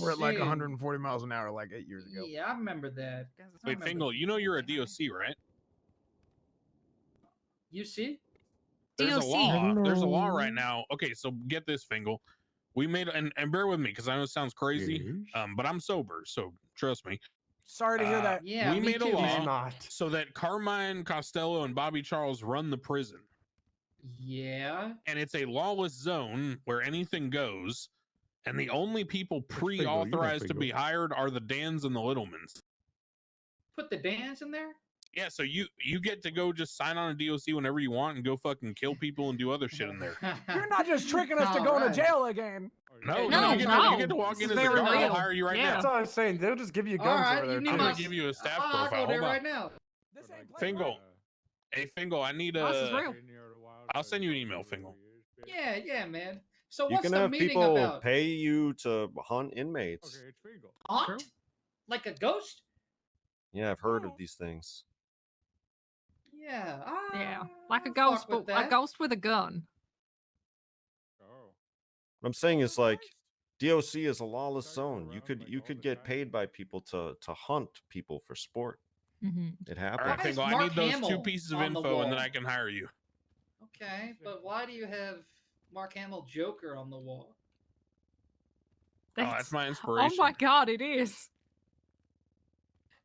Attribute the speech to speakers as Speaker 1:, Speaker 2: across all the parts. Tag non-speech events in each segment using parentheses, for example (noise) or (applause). Speaker 1: We're at like
Speaker 2: Shit.
Speaker 1: 140 miles an hour like eight years ago.
Speaker 2: Yeah, I remember that.
Speaker 3: Guys, I
Speaker 4: Wait,
Speaker 3: remember.
Speaker 4: Fingal, you know you're a DOC, right?
Speaker 2: You see?
Speaker 4: There's a
Speaker 5: DOC.
Speaker 4: law. There's a law right now. Okay, so get this, Fingal. We made and, and bear with me because I know it sounds crazy, um, but I'm sober, so trust me.
Speaker 6: Sorry to hear
Speaker 4: Uh,
Speaker 6: that.
Speaker 2: Yeah,
Speaker 4: we
Speaker 2: me
Speaker 4: made a
Speaker 2: too.
Speaker 4: law.
Speaker 6: He's not.
Speaker 4: So that Carmine Costello and Bobby Charles run the prison,
Speaker 2: Yeah.
Speaker 4: and it's a lawless zone where anything goes, and the only people
Speaker 7: Fingal, you know
Speaker 4: pre-authorized to be
Speaker 7: Fingal.
Speaker 4: hired are the Dans and the Littlemans.
Speaker 2: Put the dance in there.
Speaker 4: Yeah, so you you get to go just sign on a DOC whenever you want and go fucking kill people and do other shit
Speaker 2: (laughs)
Speaker 4: in there.
Speaker 6: You're
Speaker 3: (laughs)
Speaker 6: not just tricking us to go
Speaker 2: Alright.
Speaker 6: to jail again.
Speaker 4: No,
Speaker 2: Okay,
Speaker 4: no,
Speaker 5: no,
Speaker 4: you, get To, you
Speaker 5: no.
Speaker 4: get to walk in
Speaker 5: This is
Speaker 4: as the
Speaker 5: very
Speaker 4: guard. I'll
Speaker 5: real.
Speaker 4: hire you right
Speaker 5: Yeah.
Speaker 6: That's
Speaker 4: now.
Speaker 6: all I was saying. They'll just give you guns
Speaker 2: Alright,
Speaker 6: over there.
Speaker 2: you need
Speaker 4: I'm
Speaker 2: my
Speaker 4: gonna
Speaker 2: s-
Speaker 4: give you a staff
Speaker 5: Oh,
Speaker 2: I'll
Speaker 4: profile.
Speaker 2: go
Speaker 4: Hold
Speaker 2: there
Speaker 4: on.
Speaker 2: right now.
Speaker 6: This ain't playing
Speaker 4: Fingal.
Speaker 6: right.
Speaker 3: uh,
Speaker 4: Hey, Fingal, I need uh,
Speaker 5: This is
Speaker 4: a.
Speaker 5: real.
Speaker 4: I'll send you an email, Fingal.
Speaker 2: Yeah, yeah, man. So
Speaker 7: You
Speaker 2: what's
Speaker 7: can
Speaker 2: the
Speaker 7: have
Speaker 2: meeting
Speaker 7: people
Speaker 2: about?
Speaker 7: pay you to hunt inmates.
Speaker 3: it's Fingal.
Speaker 2: Aunt? Like a ghost?
Speaker 7: Yeah, I've heard
Speaker 6: Oh.
Speaker 7: of these things.
Speaker 2: Yeah.
Speaker 5: Yeah,
Speaker 2: I-
Speaker 5: like a
Speaker 2: I'll
Speaker 5: ghost,
Speaker 2: fuck
Speaker 5: but
Speaker 2: with
Speaker 5: a
Speaker 2: that.
Speaker 5: ghost with a gun.
Speaker 3: Oh.
Speaker 7: What I'm saying is like DOC is a lawless
Speaker 3: Guys go
Speaker 7: zone. You
Speaker 3: around,
Speaker 7: could
Speaker 3: like,
Speaker 7: you
Speaker 3: all
Speaker 7: could
Speaker 3: the
Speaker 7: get
Speaker 3: time.
Speaker 7: paid by people to to hunt people for sport.
Speaker 5: hmm
Speaker 7: It
Speaker 4: All
Speaker 7: happens.
Speaker 4: right,
Speaker 2: Why is
Speaker 4: Fingal, I
Speaker 2: Mark
Speaker 4: need those two
Speaker 2: Hamill
Speaker 4: pieces of
Speaker 2: on the
Speaker 4: info and then
Speaker 2: wall?
Speaker 4: I can hire you. Oh,
Speaker 2: Okay, but why do you have Mark Hamill Joker on the wall?
Speaker 4: oh, that's my
Speaker 5: oh
Speaker 4: inspiration.
Speaker 5: my god, it is.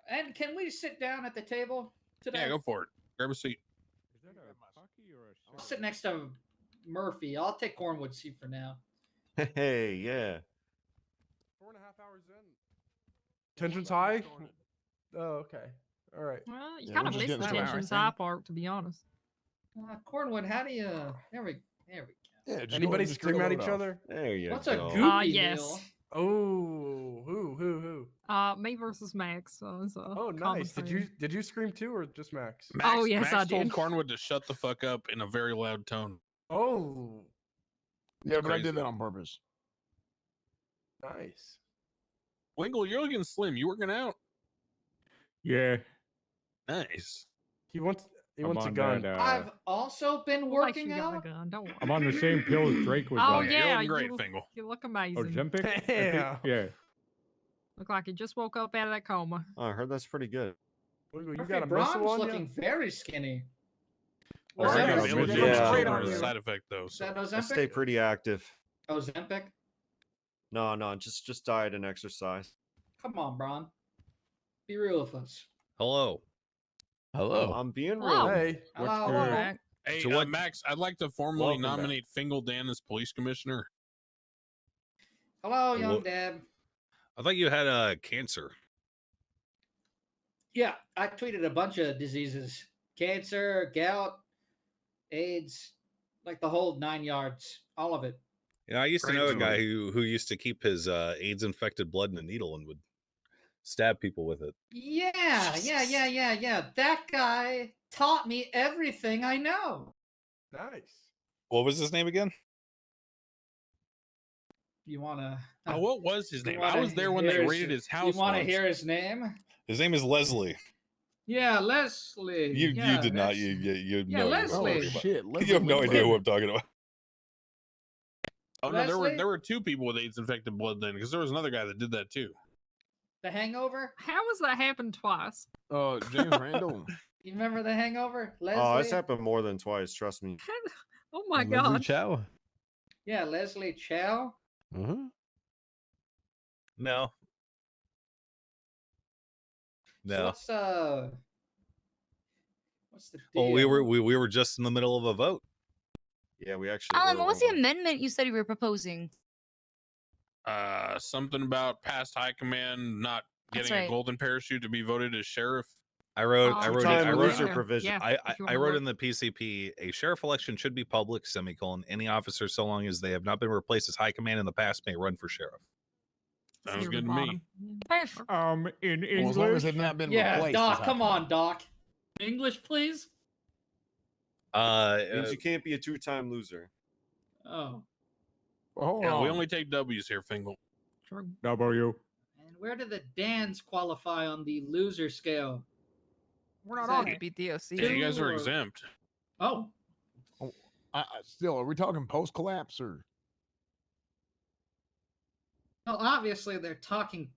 Speaker 2: And can we sit down at the table today?
Speaker 4: Yeah, go for it. Grab a
Speaker 5: Oh,
Speaker 4: seat.
Speaker 3: Is that a hockey or a
Speaker 2: I'll
Speaker 3: shot?
Speaker 2: sit next to Murphy. I'll take Cornwood's seat for now.
Speaker 7: (laughs) Hey, yeah.
Speaker 3: Four and a half hours in.
Speaker 6: Tension's high. Oh, okay. All right.
Speaker 5: Well, you
Speaker 7: Yeah,
Speaker 5: kind
Speaker 7: we're
Speaker 5: of missed
Speaker 7: just getting
Speaker 5: the
Speaker 1: started.
Speaker 5: tension side part, to be honest.
Speaker 2: Uh, Cornwood, how do you? There we, there we
Speaker 7: Yeah, just go ahead
Speaker 6: Anybody
Speaker 7: and just
Speaker 6: scream
Speaker 7: get
Speaker 6: at
Speaker 7: a
Speaker 6: each
Speaker 7: load off.
Speaker 6: other?
Speaker 7: There you
Speaker 2: go. What's a
Speaker 7: go.
Speaker 2: goopy
Speaker 5: Ah,
Speaker 2: meal?
Speaker 5: yes.
Speaker 6: Oh, who, who, who?
Speaker 5: Uh, me versus Max. So it's a
Speaker 6: Oh,
Speaker 5: common
Speaker 6: nice. Did
Speaker 5: thing.
Speaker 6: you did you scream too, or just Max?
Speaker 4: Max,
Speaker 5: yes,
Speaker 4: Max
Speaker 5: I
Speaker 4: told
Speaker 5: did.
Speaker 4: Cornwood to shut the fuck up in a very loud tone.
Speaker 6: Oh,
Speaker 1: Yeah, but I
Speaker 4: Crazy.
Speaker 1: did that on purpose.
Speaker 6: nice.
Speaker 4: Wingle, you're looking slim. You working out?
Speaker 3: Yeah.
Speaker 4: Nice.
Speaker 6: He wants he
Speaker 3: I'm
Speaker 6: wants a
Speaker 3: on
Speaker 6: gun.
Speaker 3: That, uh,
Speaker 2: I've also been
Speaker 5: We'll make
Speaker 2: working
Speaker 5: you got a
Speaker 2: out.
Speaker 5: gun. Don't worry.
Speaker 3: I'm on the same pill as Drake was
Speaker 5: Oh,
Speaker 3: on. Oh,
Speaker 5: yeah,
Speaker 4: you're looking great,
Speaker 5: you-
Speaker 4: Fingal.
Speaker 5: You look amazing.
Speaker 3: Ozempic? I think-
Speaker 6: Yeah.
Speaker 3: Yeah.
Speaker 5: Look like you just woke up out of that coma.
Speaker 7: Oh, I heard that's pretty good.
Speaker 6: Wiggle, you
Speaker 2: Murphy
Speaker 6: got a
Speaker 2: Braun's
Speaker 6: missile on ya?
Speaker 2: looking very skinny.
Speaker 6: Well,
Speaker 4: Or
Speaker 2: Ozempic-
Speaker 4: you're
Speaker 6: that
Speaker 7: yeah,
Speaker 6: looks-
Speaker 4: available
Speaker 6: that
Speaker 4: to
Speaker 6: looks
Speaker 7: yeah.
Speaker 4: treat
Speaker 6: great
Speaker 4: it
Speaker 6: on
Speaker 4: for a
Speaker 6: you.
Speaker 4: side effect though.
Speaker 2: Is
Speaker 4: so-
Speaker 2: that
Speaker 7: I
Speaker 2: Ozempic?
Speaker 7: stay pretty active.
Speaker 2: Ozempic?
Speaker 7: No, no, just just diet and exercise.
Speaker 2: Come on, Braun. Be real with us.
Speaker 8: Hello. Hello.
Speaker 7: I'm being real.
Speaker 5: Oh.
Speaker 6: Hey,
Speaker 2: Hello,
Speaker 3: your-
Speaker 2: hello.
Speaker 5: Mac.
Speaker 4: Hey,
Speaker 8: So
Speaker 4: uh,
Speaker 8: what-
Speaker 4: Max, I'd like to formally
Speaker 7: Welcome back.
Speaker 4: nominate Fingal Dan as police commissioner.
Speaker 2: hello, young
Speaker 8: Hello.
Speaker 2: dad.
Speaker 8: I thought you had uh, cancer.
Speaker 2: Yeah, I tweeted a bunch of diseases: cancer, gout, AIDS, like the whole nine yards, all of it.
Speaker 8: You know, I used to
Speaker 4: Right,
Speaker 8: know a
Speaker 4: so-
Speaker 8: guy who who used to keep his uh, AIDS-infected blood in a needle and would stab people with it.
Speaker 2: Yeah, yeah, yeah, yeah, yeah. That guy taught me everything I know.
Speaker 6: nice.
Speaker 8: What was his name again?
Speaker 2: You wanna?
Speaker 4: Oh, what was his
Speaker 2: You
Speaker 4: name? I
Speaker 2: wanna
Speaker 4: was there when they
Speaker 2: hear his-
Speaker 4: raided his house.
Speaker 2: you want to
Speaker 4: once.
Speaker 2: hear his name?
Speaker 8: His name is Leslie.
Speaker 2: Yeah, Leslie.
Speaker 8: You
Speaker 2: yeah,
Speaker 8: you did not.
Speaker 2: Les-
Speaker 8: You you you
Speaker 2: Yeah,
Speaker 8: know.
Speaker 2: Leslie.
Speaker 1: Oh
Speaker 2: Wait,
Speaker 1: shit!
Speaker 8: (laughs)
Speaker 1: Let's
Speaker 8: You have no
Speaker 1: look
Speaker 8: idea
Speaker 1: back.
Speaker 8: who I'm talking about.
Speaker 4: Oh no, there were
Speaker 2: Leslie?
Speaker 4: there were two people with AIDS infected blood then, because there was another guy that did that too.
Speaker 2: The Hangover.
Speaker 5: How has that happened twice? (laughs)
Speaker 1: Uh, James
Speaker 4: (laughs)
Speaker 1: Randall.
Speaker 2: You remember the Hangover? Leslie.
Speaker 7: Oh, it's happened more than twice. Trust me.
Speaker 5: oh my god.
Speaker 8: Chow.
Speaker 2: yeah, Leslie Chow.
Speaker 8: No.
Speaker 2: So
Speaker 8: No.
Speaker 2: what's uh? What's the deal?
Speaker 8: Well, Oh, we were we, we were just in the middle of a vote.
Speaker 7: Yeah, we actually.
Speaker 5: Alan,
Speaker 7: were
Speaker 5: what was the
Speaker 7: wrong.
Speaker 5: amendment you said you were proposing?
Speaker 4: Uh, something about past high command not
Speaker 5: That's
Speaker 4: getting a
Speaker 5: right.
Speaker 4: golden parachute to be voted as sheriff.
Speaker 8: I wrote I
Speaker 5: Oh,
Speaker 8: wrote it,
Speaker 7: Time
Speaker 8: I wrote
Speaker 7: loser provision.
Speaker 5: Yeah,
Speaker 8: I,
Speaker 5: if
Speaker 8: I,
Speaker 5: you
Speaker 8: I
Speaker 5: wanna
Speaker 8: wrote
Speaker 5: look.
Speaker 8: in the PCP a sheriff election should be public semicolon any officer so long as they have not been replaced as high command in the past may run for sheriff.
Speaker 5: It's
Speaker 4: Sounds
Speaker 5: near the
Speaker 4: good to me.
Speaker 5: bottom. Perfect.
Speaker 3: Um, in
Speaker 1: Well, as long as
Speaker 3: English.
Speaker 1: they've not been
Speaker 2: Yeah,
Speaker 1: replaced.
Speaker 2: Doc. Come on, Doc. English, please.
Speaker 8: Uh,
Speaker 7: Means
Speaker 8: uh,
Speaker 7: you can't be a two-time loser.
Speaker 2: Oh,
Speaker 1: Hold
Speaker 4: Yeah,
Speaker 1: on.
Speaker 4: we only take W's here, Fingal.
Speaker 5: True.
Speaker 3: W.
Speaker 2: and where do the Dans qualify on the loser scale?
Speaker 5: We're
Speaker 2: not
Speaker 5: not
Speaker 2: So on
Speaker 5: on
Speaker 2: you- it.
Speaker 5: it. Be DOC.
Speaker 4: Yeah, you guys are
Speaker 2: Sure.
Speaker 4: exempt.
Speaker 2: Oh,
Speaker 1: I, I- still, are we talking post collapse or?
Speaker 2: No, obviously they're talking